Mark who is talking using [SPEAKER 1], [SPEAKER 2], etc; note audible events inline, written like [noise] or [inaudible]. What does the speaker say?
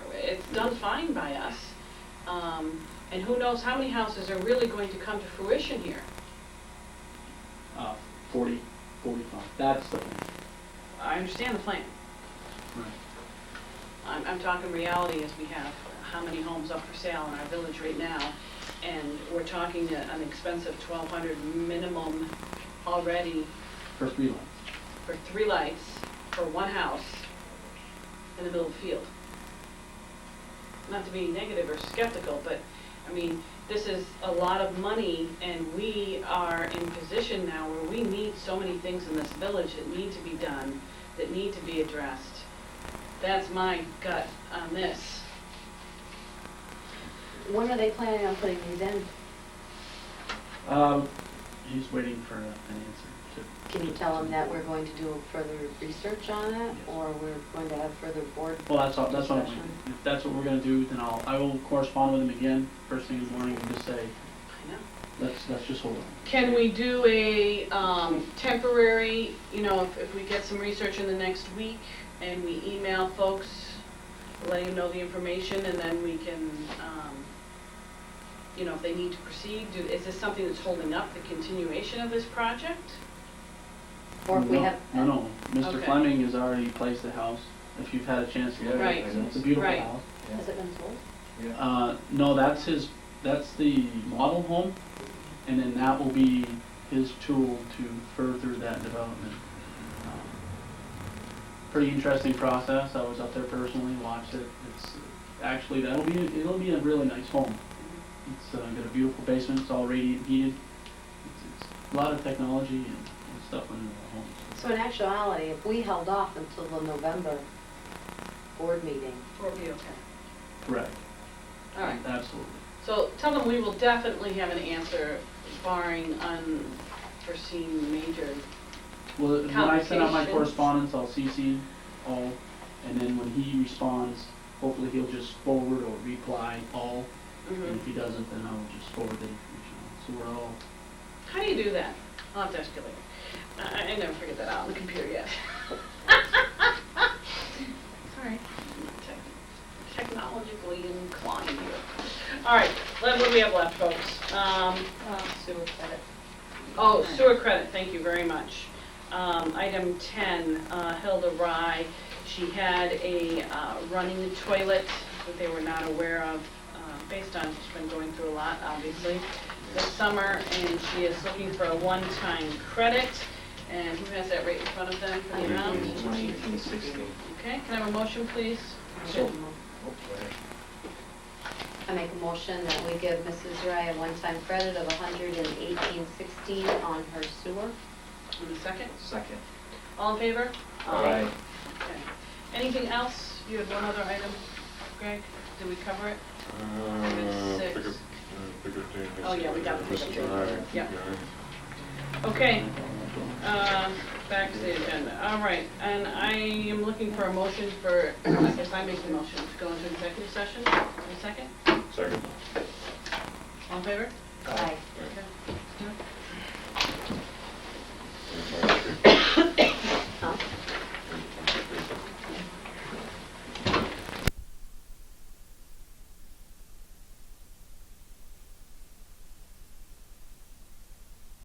[SPEAKER 1] done fine by us. Um, And who knows how many houses are really going to come to fruition here?
[SPEAKER 2] Uh, 40, 45, that's the thing.
[SPEAKER 1] I understand the plan. I'm, I'm talking reality as we have how many homes up for sale in our village right now. And we're talking a- an expense of 1,200 minimum already
[SPEAKER 2] For three lots.
[SPEAKER 1] for three lights for one house in the middle of the field. Not to be negative or skeptical, but, I mean, this is a lot of money, and we are in position now where we need so many things in this village that need to be done, that need to be addressed. That's my gut on this.
[SPEAKER 3] When are they planning on putting these in?
[SPEAKER 2] Um, He's waiting for an answer to.
[SPEAKER 3] Can you tell them that we're going to do further research on it,
[SPEAKER 2] Yes.
[SPEAKER 3] or we're going to have further board?
[SPEAKER 2] Well, that's all, that's what I'm,
[SPEAKER 3] discussion?
[SPEAKER 2] if that's what we're gonna do, then I'll, I will correspond with him again first thing in the morning and just say,
[SPEAKER 1] I know.
[SPEAKER 2] let's, let's just hold on.
[SPEAKER 1] Can we do a um, temporary, you know, if- if we get some research in the next week and we email folks, letting them know the information and then we can, um, you know, if they need to proceed, do, is this something that's holding up the continuation of this project?
[SPEAKER 3] Or if we
[SPEAKER 2] No,
[SPEAKER 3] have.
[SPEAKER 2] No, no, Mr.
[SPEAKER 1] Okay.
[SPEAKER 2] Fleming has already placed the house, if you've had a chance to look at
[SPEAKER 1] Right.
[SPEAKER 2] it. It's a beautiful
[SPEAKER 1] Right.
[SPEAKER 2] house.
[SPEAKER 3] Has it been sold?
[SPEAKER 4] Yeah.
[SPEAKER 2] Uh, no, that's his, that's the model home, and then that will be his tool to further that development. Um, Pretty interesting process, I was up there personally, watched it, it's, actually, that'll be, it'll be a really nice home. It's, uh, got a beautiful basement, it's all radiant heated, it's, it's a lot of technology and, and stuff in the home.
[SPEAKER 3] So in actuality, if we held off until the November board meeting,
[SPEAKER 1] Or be okay?
[SPEAKER 2] Correct.
[SPEAKER 1] All right,
[SPEAKER 2] Absolutely.
[SPEAKER 1] so tell them we will definitely have an answer barring unforeseen major,
[SPEAKER 2] Well, when I send out my
[SPEAKER 1] Conversations.
[SPEAKER 2] correspondence, I'll CC all, and then when he responds, hopefully he'll just forward or reply all,
[SPEAKER 1] Mm-hmm.
[SPEAKER 2] and if he doesn't, then I'll just forward the information on. So we're all,
[SPEAKER 1] How do you do that? I'll have to ask you later. I, I never figured that out on the computer yet. Sorry. Tech- Technologically inclined here. All right, Len, what do we have left, folks? Um,
[SPEAKER 5] Uh, Sewer credit.
[SPEAKER 1] Oh, sewer credit, thank you very much. Um, Item 10, uh, Hilda Rye, she had a uh, running toilet that they were not aware of, uh, based on, she's been going through a lot, obviously, this summer, and she is looking for a one-time credit, and who has that right in front of them for the amount?
[SPEAKER 4] Eighteen sixteen.
[SPEAKER 1] Okay, can I have a motion, please?
[SPEAKER 3] I make a
[SPEAKER 4] So-
[SPEAKER 3] mo-
[SPEAKER 4] Oh, wait.
[SPEAKER 3] I make a motion that we give Mrs. Rai a one-time credit of hundred and eighteen sixteen on her sewer.
[SPEAKER 1] In a second.
[SPEAKER 4] Second.
[SPEAKER 1] All in favor? Um,
[SPEAKER 4] All right.
[SPEAKER 1] Okay. Anything else? You had one other item, Greg? Did we cover it?
[SPEAKER 6] Uh,
[SPEAKER 1] Six.
[SPEAKER 6] pick up- uh, pick up Jane.
[SPEAKER 1] Oh, yeah, we got the pick up
[SPEAKER 6] Mrs.
[SPEAKER 1] Jane.
[SPEAKER 6] Ryan.
[SPEAKER 1] Yeah. Okay, um, back to the agenda. All right, and I am looking for a motion for, [coughs] I guess I make the motion to go into executive session. A second? [coughs]
[SPEAKER 6] Second.
[SPEAKER 1] All in favor?
[SPEAKER 3] Aye.
[SPEAKER 1] Okay.
[SPEAKER 6] Sorry.
[SPEAKER 1] Uh.